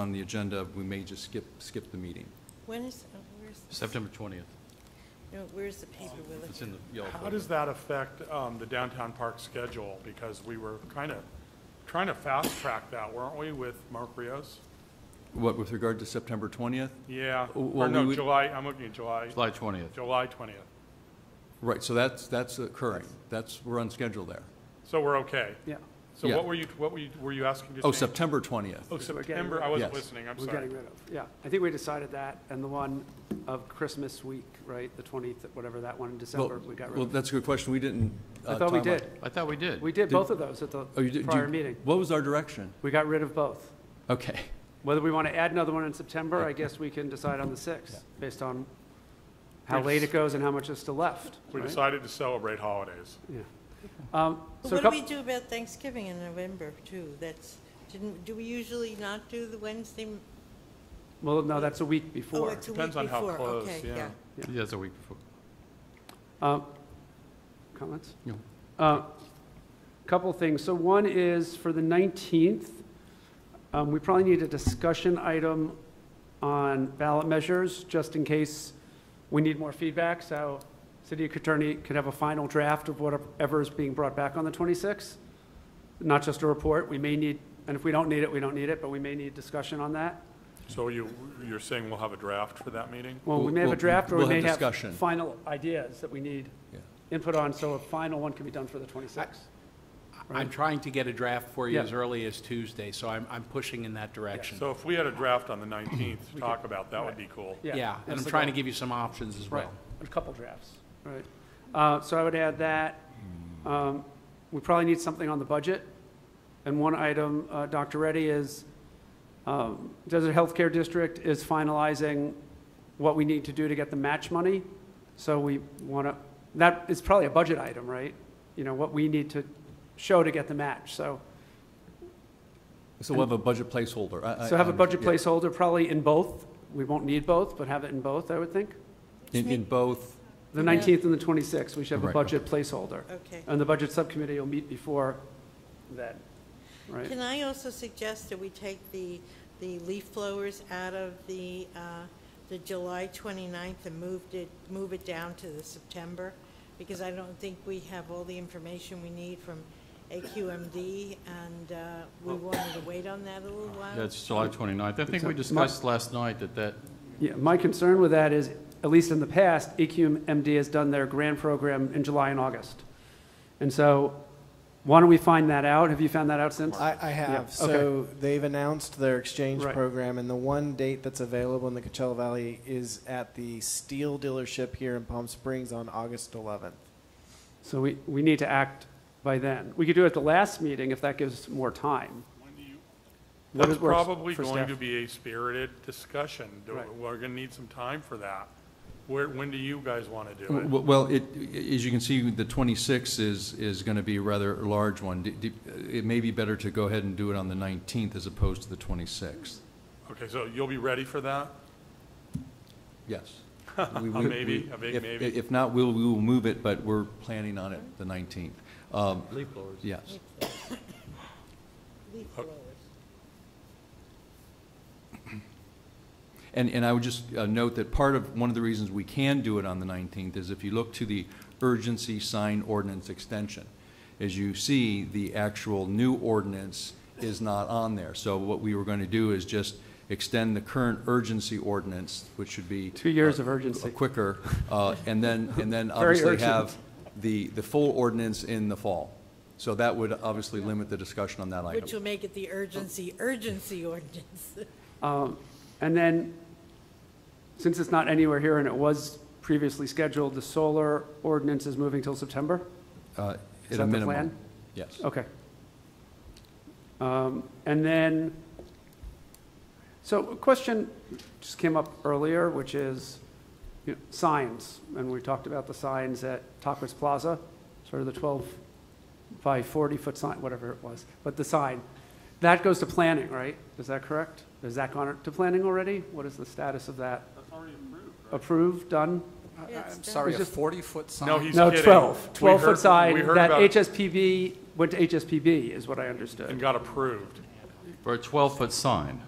on the agenda, we may just skip, skip the meeting. When is, oh, where's, September 20th. no, where's the paper we're looking? It's in the yellow How folder. does that affect um, the downtown park schedule? Because we were kind of trying to fast track that, weren't we, with Mark Rios? What, with regard to September 20th? Yeah, Well, or we no, would- July, I'm looking at July, July 20th. July 20th. Right, so that's, that's occurring. That's, we're on schedule there. So we're okay. Yeah, So Yeah. what were you, what were you, were you asking to Oh, change? September 20th. Oh, So we're getting September, rid- I wasn't Yes. listening, I'm we're sorry. getting rid of, yeah. I think we decided that, and the one of Christmas week, right, the 20th, whatever that one in December, Well, we got well, rid of. that's a good question. We didn't. I uh, thought we time out. did. I thought we did. We did Did- both of those at the Oh, you did? do you- prior meeting. What was our direction? We got rid of both. Okay, Whether we want to add another one in September, I guess we can decide on the 6th, based on how We late it just- goes and how much is still left, We right? decided to celebrate holidays. Yeah. Um, But So a What do we couple, do about Thanksgiving in November, too? That's, didn't, do we usually not do the Wednesday? m- well, no, that's a week Oh, before. it's a week before. Depends on how close, Okay, yeah. Yeah, it's a week before. Um, Comments? No. Uh, Couple things. So one is for the 19th, um, we probably need a discussion item on ballot measures, just in case we need more feedback, so city attorney could have a final draft of whatever is being brought back on the 26th, not just a report. We may need, and if we don't need it, we don't need it, but we may need discussion on that. So you, you're saying we'll have a draft for that meeting? Well, we may have a We'll- draft, or we we'll may have have discussion. final ideas that we need Yeah. input on, so a final one can be done for the 26th. I'm trying to get a draft for you Yeah. as early as Tuesday, so I'm, I'm pushing in that direction. So if we had a draft on the 19th to talk about, that would be cool. Yeah, and that's I'm the trying to goal. give you some options as Right, well. a couple drafts, right. Uh, So I would add that. Hmm. Um, We probably need something on the budget. And one item, uh, Dr. Reddy, is um, Desert Healthcare District is finalizing what we need to do to get the match money. So we want to, that is probably a budget item, right? You know, what we need to show to get the match. So, So we'll have a budget placeholder. I- I- so have a I- budget Uh, yeah. placeholder, probably in both. We won't need both, but have it in both, I would think. In, in both, The Yeah. 19th and the 26th, we should have a Right. budget placeholder. yeah, okay. And the budget subcommittee will meet before that, right? Can I also suggest that we take the, the leaf blowers out of the, uh, the July 29th and moved it, move it down to the September? Because I don't think we have all the information we need from AQMD, and uh, we wanted to wait on that a little while. Yeah, it's July 29th. I think we discussed last night that that, Yeah, my concern with that is, at least in the past, E EQMD has done their grant program in July and August. And so, why don't we find that out? Have you found that out since? I, I Yeah, okay. have. So they've announced their exchange Right. program, and the one date that's available in the Coachella Valley is at the steel dealership here in Palm Springs on August 11th. So we, we need to act by then. We could do it at the last meeting if that gives more time. What That's is works probably for going staff? to be a spirited discussion. Do- Right. We're going to need some time for that. Where, when do you guys want to do it? w- well, it, as you can see, the 26th is, is going to be a rather large one. Do- do- It may be better to go ahead and do it on the 19th as opposed to the 26th. Okay, so you'll be ready for that? Uh-huh. Yes. A maybe, a big maybe. If not, we'll, we will move it, but we're planning on it the 19th. Um, leaf blowers. Yes. Leaf blowers. And, and I would just uh, note that part of, one of the reasons we can do it on the 19th is if you look to the urgency sign ordinance extension, as you see, the actual new ordinance is not on there. So what we were going to do is just extend the current urgency ordinance, which should be. Two years uh, of urgency. Quicker, uh, and then, and then Very obviously urgent. have the, the full ordinance in the fall. So that would obviously limit the discussion on that item. Which will make it the urgency, urgency ordinance. Um, And then, since it's not anywhere here and it was previously scheduled, the solar ordinance is moving till September? uh, at Is a that the minimum. plan? Oh, Yes. Okay. Um, And then, so a question just came up earlier, which is you know, signs. And we talked about the signs at Tacos Plaza, sort of the 12 by 40-foot sign, whatever it was, but the sign. That goes to planning, right? Is that correct? Has that gone to planning already? What is the status of that? That's already approved, Approved, done? Yeah, it's I'm done. sorry, It's a just- 40-foot sign? No, he's No, kidding. 12, We 12-foot heard- sign. We heard That about it HSPB, went to HSPB, is what I understood. and got approved. For a 12-foot sign.